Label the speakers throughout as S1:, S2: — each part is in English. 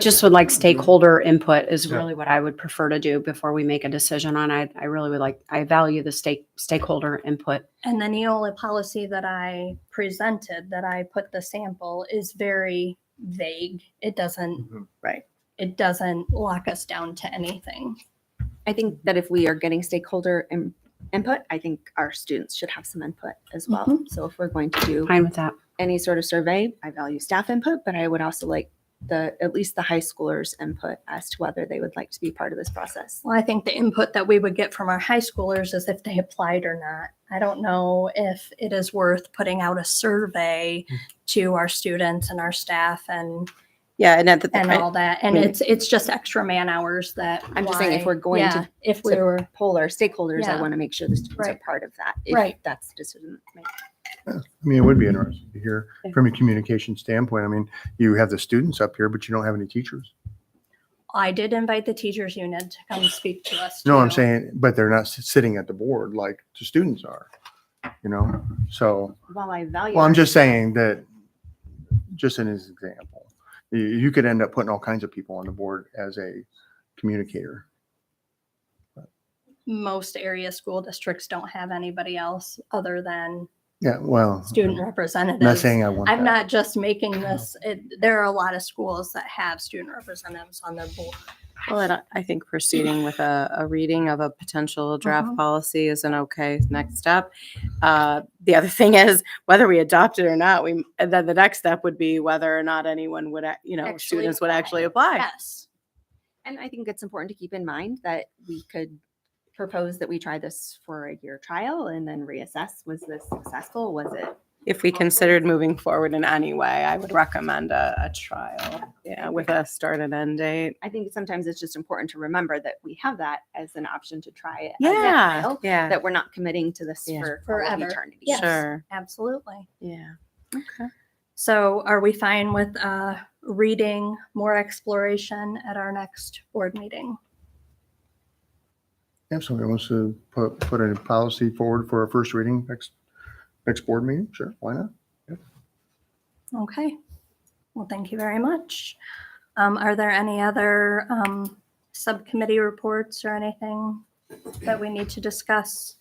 S1: Just would like stakeholder input is
S2: Yeah.
S1: really what I would prefer to do before we make a decision on. I, I really would like, I value the stake, stakeholder input.
S3: And the Neola policy that I presented, that I put the sample, is very vague. It doesn't,
S2: Mhm.
S3: it doesn't lock us down to anything.
S4: I think that if we are getting stakeholder in- input, I think our students should have some input as well.
S3: Mhm.
S4: So if we're going to do
S1: Fine with that.
S4: any sort of survey, I value staff input, but I would also like the at least the high schoolers' input as to whether they would like to be part of this process.
S3: Well, I think the input that we would get from our high schoolers is if they applied or not. I don't know if it is worth putting out a survey
S2: Mm.
S3: to our students and our staff and,
S5: Yeah, and at the
S3: and all that. And
S4: Right.
S3: it's, it's just extra man hours that.
S4: Mm. I'm just saying if
S3: why-
S4: we're going to-
S3: yeah, If we
S4: to-
S3: were,
S4: Poll our stakeholders, I
S3: Yeah.
S4: want to make sure the students are
S3: Right.
S4: part of that. if
S3: Right.
S4: That's the decision. that's made.
S2: I mean, it would be
S3: Mm-hmm.
S2: interesting to hear
S1: Yeah.
S2: from a communication standpoint. I mean, you have the students up here, but you don't have any teachers.
S3: I did invite the teachers unit to come speak to us.
S2: No, I'm
S3: too.
S2: saying, but they're not s- sitting at the board like the students are, you know? So,
S4: While I value.
S2: well, I'm
S4: our-
S2: just saying that, just in his example, you, you could end up putting all kinds of people on the board as a communicator.
S3: most area school districts don't have anybody else other than
S2: Yeah, well,
S3: student
S2: I'm not
S3: representatives.
S2: saying I want that.
S3: I'm not just making this, it, there are a lot of schools that have student representatives on their board.
S5: Well, I, don't- I think proceeding with a, a reading of a potential draft
S3: Mhm.
S5: policy is an okay next step. Uh, the other thing is whether we adopt it or not. We then the next step would be whether or not anyone would, ac- you know,
S3: Actually
S5: students would
S3: apply.
S5: actually apply.
S3: Yes.
S4: And I think it's important to keep in mind that we could propose that we try this for a year trial and then reassess, was this successful? Was it
S6: if we considered moving forward in any way, I would recommend a, a trial, yeah, with a start and end date.
S4: I think sometimes it's just important to remember that we have that as an option to try it. as a
S6: Yeah,
S4: trial,
S6: yeah,
S4: That we're not committing to this
S6: Yeah.
S4: for all of
S3: Forever.
S4: eternity.
S3: Yes.
S6: sure,
S3: Absolutely.
S6: yeah.
S3: So are we fine with, uh, reading more exploration at our next board meeting?
S2: If somebody wants to put, put a policy forward for a first reading next, next board meeting, sure, why not?
S3: Okay. Well, thank you very much. Um, are there any other, um, subcommittee reports or anything that we need to discuss?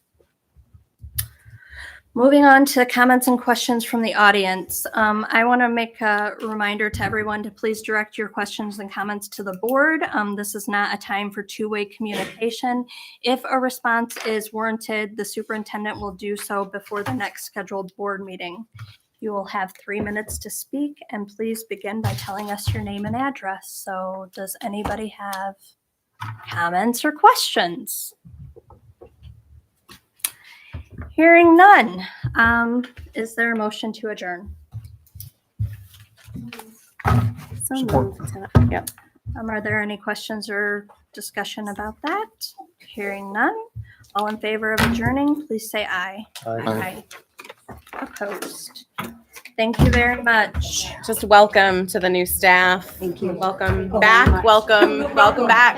S3: Moving on to comments and questions from the audience. Um, I want to make a reminder to everyone to please direct your questions and comments to the board. Um, this is not a time for two-way communication. If a response is warranted, the superintendent will do so before the next scheduled board meeting. You will have three minutes to speak, and please begin by telling us your name and address. So, does anybody have comments or questions? Hearing none. Um, is there a motion to adjourn?
S4: So
S2: Support.
S4: moved.
S3: Um, are there any questions or discussion about that? Hearing none. All in favor of adjourning, please say aye.
S2: Aye.
S3: Opposed. Thank you very much.
S6: Just welcome to the new staff. Thank you. Welcome back, welcome, welcome back.